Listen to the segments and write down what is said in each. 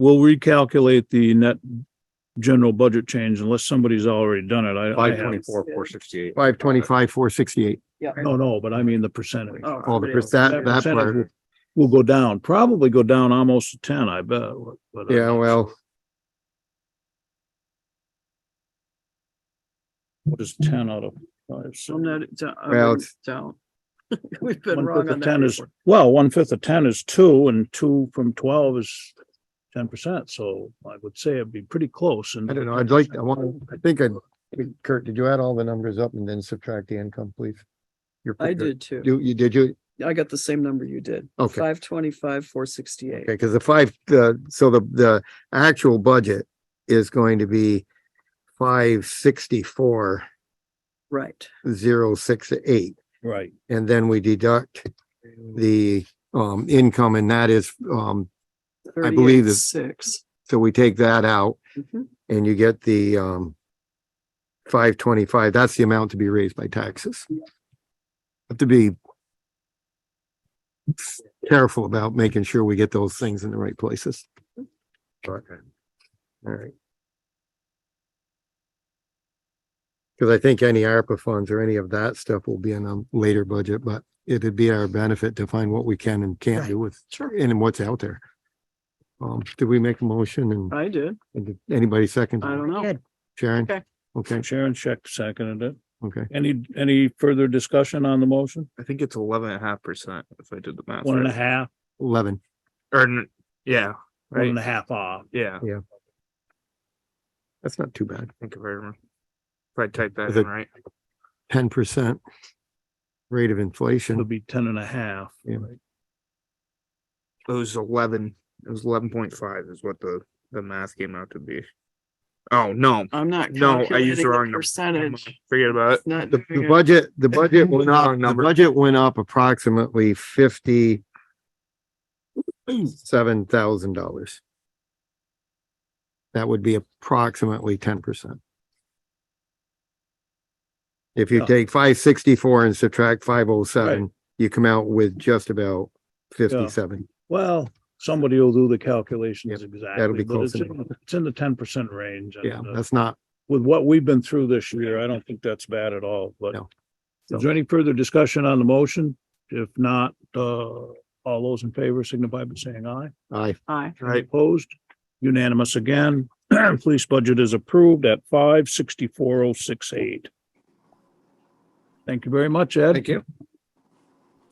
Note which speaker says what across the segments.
Speaker 1: we'll recalculate the net general budget change unless somebody's already done it. I, I
Speaker 2: Five
Speaker 1: have.
Speaker 2: twenty-four, four sixty-eight.
Speaker 3: Five twenty-five, four sixty-eight.
Speaker 1: No, no, but I mean the percentage.
Speaker 4: Oh,
Speaker 3: Oh, All the,
Speaker 4: but it-
Speaker 3: pers- that,
Speaker 1: That
Speaker 3: that
Speaker 1: percentage
Speaker 3: part.
Speaker 1: Will go down, probably go down almost to ten, I bet. but, uh,
Speaker 3: Yeah, well,
Speaker 1: What is ten out of five? six?
Speaker 4: I'm not, it's, uh, I
Speaker 3: Well,
Speaker 4: wouldn't doubt. We've been
Speaker 1: One
Speaker 4: wrong
Speaker 1: fifth
Speaker 4: on
Speaker 1: of
Speaker 4: that.
Speaker 1: ten is,
Speaker 4: before.
Speaker 1: well, one fifth of ten is two and two from twelve is ten percent. So I would say it'd be pretty close and.
Speaker 3: I don't know. I'd like, I want, I think I'd, Kurt, did you add all the numbers up and then subtract the income, please? Your
Speaker 4: I
Speaker 3: figure.
Speaker 4: did too.
Speaker 3: Do, you, did you?
Speaker 4: I got the same number you did.
Speaker 3: Okay.
Speaker 4: Five twenty-five, four sixty-eight.
Speaker 3: Okay, because the five, the, so the, the actual budget is going to be five sixty-four,
Speaker 4: Right.
Speaker 3: zero, six, eight.
Speaker 1: Right.
Speaker 3: And then we deduct the, um, income and that is, um, I believe it's-
Speaker 4: Six.
Speaker 3: so we take that out
Speaker 4: Mhm.
Speaker 3: and you get the, um, five twenty-five, that's the amount to be raised by taxes. Have to be careful about making sure we get those things in the right places. All right. Because I think any ARPA funds or any of that stuff will be in a later budget, but it'd be our benefit to find what we can and can't do with, and what's out there. Um, did we make a motion and-
Speaker 4: I did.
Speaker 3: and did anybody second?
Speaker 4: I don't know.
Speaker 5: Good.
Speaker 3: Sharon?
Speaker 4: Okay.
Speaker 3: Okay,
Speaker 1: Sharon checked seconded it.
Speaker 3: okay.
Speaker 1: Any, any further discussion on the motion?
Speaker 2: I think it's eleven and a half percent if I did the math.
Speaker 1: One and a
Speaker 2: right.
Speaker 1: half,
Speaker 3: Eleven.
Speaker 2: Or, n- yeah,
Speaker 1: one
Speaker 2: right,
Speaker 1: and a half off.
Speaker 2: yeah, I
Speaker 3: That's not too bad.
Speaker 2: think if I remember. If I type that
Speaker 3: Is
Speaker 2: in,
Speaker 3: it-
Speaker 2: right?
Speaker 3: Ten percent rate of inflation.
Speaker 1: It'll be ten and a half.
Speaker 3: Yeah.
Speaker 2: It was eleven, it was eleven point five is what the, the math came out to be. Oh, no,
Speaker 4: I'm not.
Speaker 2: No, I used
Speaker 4: calculating
Speaker 2: the
Speaker 4: the
Speaker 2: wrong number.
Speaker 4: Percentage.
Speaker 2: forget about it.
Speaker 4: Not
Speaker 3: Uh, The,
Speaker 4: doing
Speaker 3: the
Speaker 4: it.
Speaker 3: budget, the budget went up,
Speaker 2: Wrong
Speaker 3: the
Speaker 2: number.
Speaker 3: budget went up approximately fifty seven thousand dollars. That would be approximately ten percent. If you
Speaker 1: Yeah.
Speaker 3: take five sixty-four and subtract five oh seven, you come out with just about fifty-seven.
Speaker 1: Well, somebody will do the calculations exactly, but
Speaker 3: close
Speaker 1: it's, in-
Speaker 3: enough.
Speaker 1: it's in the ten percent range. and,
Speaker 3: Yeah,
Speaker 1: uh,
Speaker 3: that's not,
Speaker 1: With what we've been through this year, I don't think that's bad at all, but
Speaker 3: No.
Speaker 1: is there any further discussion on the motion? If not, uh, all those in favor signify by saying aye.
Speaker 3: I,
Speaker 4: Aye.
Speaker 1: Any Opposed? Unanimous again. Police budget is approved at five sixty-four oh six eight. Thank you very much, Ed.
Speaker 2: you.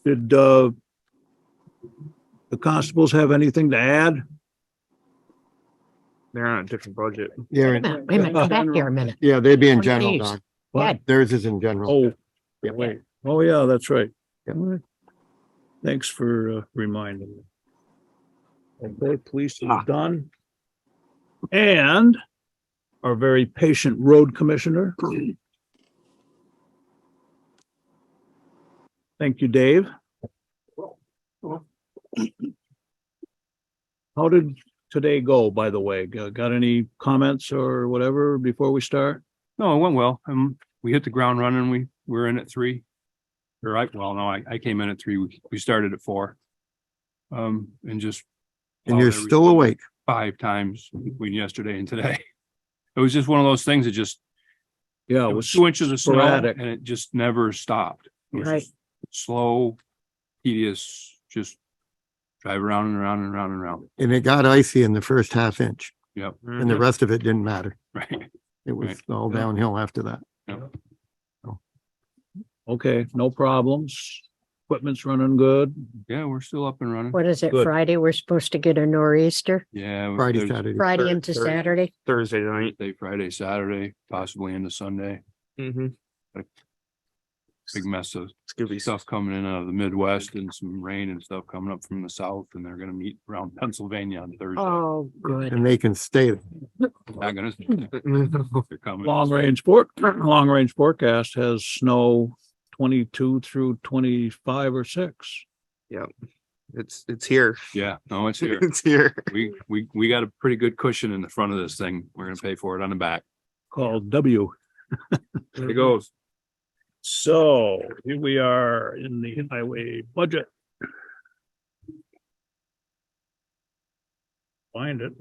Speaker 1: Did, uh, the constables have anything to add?
Speaker 2: They're on a different budget.
Speaker 3: yeah,
Speaker 5: Wait a
Speaker 3: and-
Speaker 5: minute, wait a minute, come back here a minute.
Speaker 3: yeah, they'd be in
Speaker 5: One
Speaker 3: general,
Speaker 5: page.
Speaker 3: Don.
Speaker 1: What?
Speaker 5: Ed,
Speaker 3: Theirs is in general.
Speaker 1: Oh,
Speaker 3: Yeah.
Speaker 1: wait. Oh, yeah, that's right.
Speaker 3: Yeah.
Speaker 1: All right. Thanks for uh, reminding me. Okay, police is
Speaker 2: Ah.
Speaker 1: done. And our very patient road commissioner. Thank you, Dave. How did today go, by the way? G- Got any comments or whatever before we start?
Speaker 6: No, it went well. Um, we hit the ground running. We were in at three. Or I, well, no, I, I came in at three. We, we started at four. Um, and just.
Speaker 3: And you're
Speaker 6: plowed every-
Speaker 3: still awake.
Speaker 6: Five times between yesterday and today. It was just one of those things that just,
Speaker 1: Yeah, it
Speaker 6: it was
Speaker 1: was
Speaker 6: two inches of snow
Speaker 1: sporadic.
Speaker 6: and it just never stopped. It was
Speaker 5: Right.
Speaker 6: just Slow, tedious, just drive around and around and around and around.
Speaker 3: And it got icy in the first half inch
Speaker 6: Yep,
Speaker 2: Mm-hmm.
Speaker 3: and the rest of it didn't matter.
Speaker 6: right.
Speaker 3: It was
Speaker 6: Right.
Speaker 3: all
Speaker 6: Yeah.
Speaker 3: downhill after that.
Speaker 6: Yep.
Speaker 1: Okay, no problems. Equipment's running good.
Speaker 6: Yeah, we're still up and running.
Speaker 5: What is it,
Speaker 1: Good.
Speaker 5: Friday? We're supposed to get a nor'easter,
Speaker 6: Yeah.
Speaker 3: Friday,
Speaker 6: there's
Speaker 3: Saturday.
Speaker 5: Friday
Speaker 2: Third-
Speaker 5: into
Speaker 2: third.
Speaker 5: Saturday.
Speaker 2: Thursday night.
Speaker 6: Thursday, Friday, Saturday, possibly into Sunday.
Speaker 2: Mm-hmm.
Speaker 6: Big mess of
Speaker 2: It's gonna be
Speaker 6: stuff coming in out of the Midwest and some rain and stuff coming up from the south and they're gonna meet around Pennsylvania on Thursday.
Speaker 5: Oh, good.
Speaker 3: And they can stay.
Speaker 6: Not gonna, they're coming.
Speaker 1: Long range fork, long range forecast has snow twenty-two through twenty-five or six.
Speaker 2: It's, it's here.
Speaker 6: Yeah, no, it's here.
Speaker 2: It's here.
Speaker 6: We, we, we got a pretty good cushion in the front of this thing. We're gonna pay for it on the back.
Speaker 1: called W.
Speaker 6: There it goes.
Speaker 1: So here we are in the highway budget. Find it.